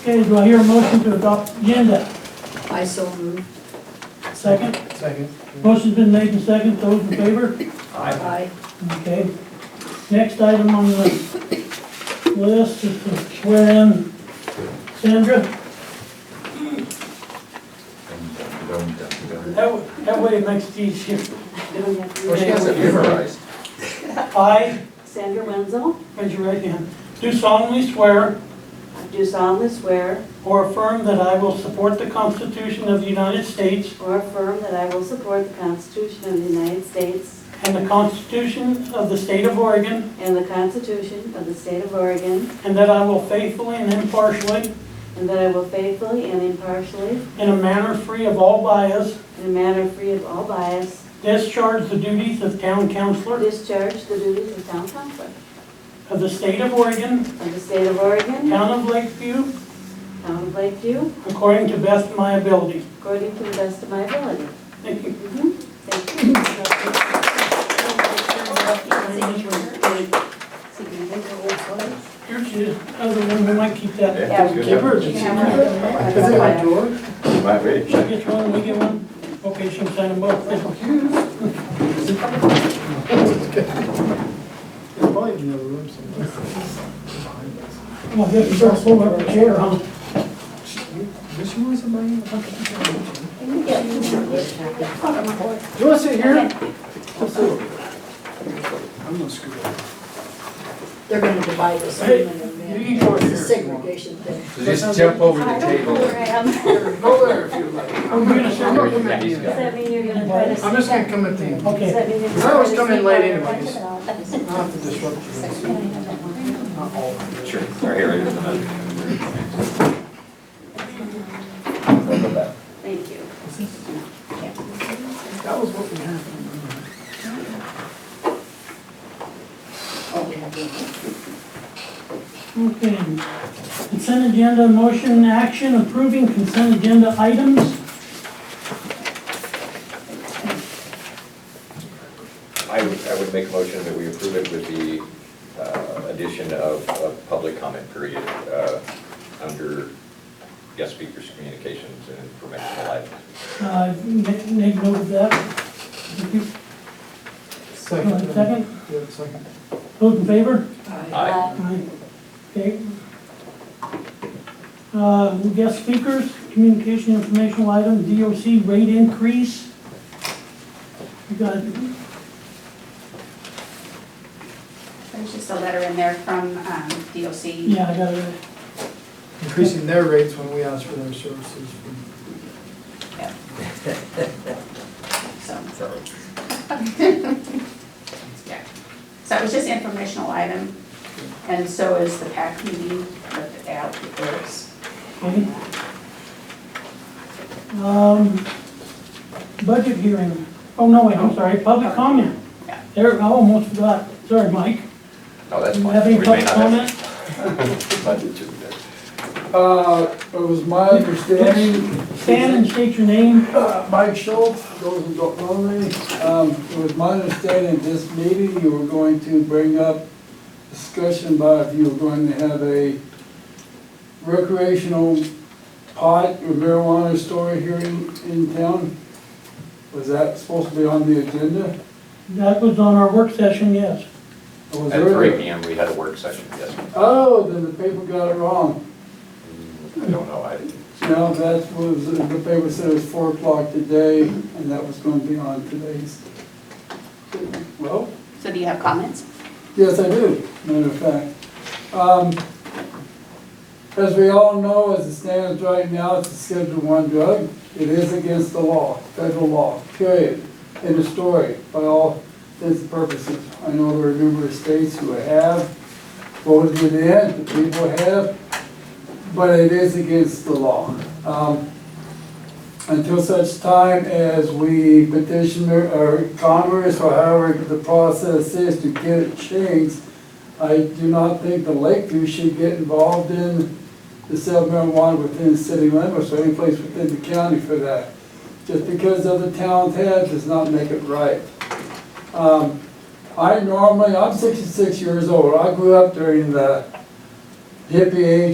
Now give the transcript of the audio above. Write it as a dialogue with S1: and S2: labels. S1: Okay, do I hear a motion to adopt the agenda?
S2: I so move.
S1: Second?
S3: Second.
S1: Motion's been made and second, those in favor?
S2: Aye.
S1: Okay. Next item on the list is to swear in Sandra. That, w- that way it makes it easier.
S3: Well, she has it memorized.
S1: I,
S4: Sandra Wenzel,
S1: raise your right hand, do solemnly swear
S4: I do solemnly swear
S1: or affirm that I will support the Constitution of the United States
S4: or affirm that I will support the Constitution of the United States
S1: and the Constitution of the State of Oregon,
S4: and the Constitution of the State of Oregon,
S1: and that I will faithfully and impartially,
S4: and that I will faithfully and impartially,
S1: in a manner free of all bias,
S4: in a manner free of all bias,
S1: discharge the duties of town councillor
S4: discharge the duties of town council
S1: of the State of Oregon,
S4: of the State of Oregon,
S1: town of Lakeview,
S4: town of Lakeview,
S1: according to best of my ability.
S4: according to the best of my ability.
S1: Thank you.
S4: Mhm. Thank you. Here's your-
S1: Other one, we might keep that.
S3: Yeah, it's good.
S1: Give her the secret.
S3: Is it like George?
S5: Might be.
S1: She gets one, we get one. Okay, she'll sign them both.
S3: It's probably in the other room somewhere. Behind us.
S1: Well, this is our full of chair, huh?
S3: Does she want somebody in the fucking? You wanna sit here? Just sit over there. I'm gonna screw up.
S2: They're gonna divide us.
S1: Hey,
S2: man.
S1: you go
S2: It's a
S1: here.
S2: segregation thing.
S5: Just jump over the table.
S3: Go there if you like.
S1: Are we gonna
S3: I'm
S1: sign
S3: not
S1: it?
S3: coming to
S5: He's
S3: you.
S4: Does that mean you're gonna try to?
S3: I'm just gonna come at the end.
S4: Does
S1: Okay,
S4: that mean you're
S3: I always
S4: gonna
S3: come in
S4: sneak
S3: late
S4: out of
S3: anyways.
S4: your pocket?
S3: I'll have to disrupt you. Not all of you.
S5: Sure. Right here, here's another. Look at that.
S4: Thank you.
S3: That was what we had.
S1: okay. Consent agenda, motion, action, approving consent agenda items.
S5: I would, I would make a motion that we approve it with the uh, addition of a public comment period uh, under guest speakers' communications and informational items.
S1: Uh, make make note of that. If you-
S3: Second.
S1: Second?
S3: Yeah, second.
S1: Those in favor?
S4: Uh,
S5: Aye.
S1: Aye. Okay. Uh, guest speakers, communication informational item, DOC rate increase. You got,
S6: There's just a letter in there from um, DOC.
S1: yeah, I got it.
S3: Increasing their rates when we ask for their services from
S6: So Yeah. So it was just informational item, and so is the PAC meeting, but the ad reports.
S1: Okay. Um, budget hearing. Oh, no, wait, I'm sorry, public comment.
S6: Yeah.
S1: There, I almost forgot. Sorry, Mike.
S5: No, that's
S1: You
S5: fine.
S1: have any
S5: We may
S1: public
S5: not
S1: comment?
S5: Budget to do that.
S7: Uh, it was my understanding,
S1: Stand and state your name.
S7: uh, Mike Schultz, those who don't know me, um, it was my understanding at this meeting, you were going to bring up discussion about if you were going to have a recreational pot or marijuana store here in, in town. Was that supposed to be on the agenda?
S1: That was on our work session, yes.
S7: Or was
S5: At
S7: there-
S5: three P M, we had a work session, yes.
S7: Oh, then the paper got it wrong.
S5: I don't know, I didn't.
S7: No, that was, the paper said it was four o'clock today, and that was going to be on today's. Well,
S6: So do you have comments?
S7: yes, I do, matter of fact. Um, As we all know, as it stands right now, it's a Schedule One drug. It is against the law, federal law, period. End of story, by all intents and purposes. I know there are numerous states who have voted it in, the people have, but it is against the law. Um, Until such time as we petition or- or Congress or however the process is to get it changed, I do not think the Lakeview should get involved in the sale of marijuana within city limits or any place within the county for that. Just because other towns have does not make it right. Um, I normally, I'm sixty-six years old, I grew up during the hippie age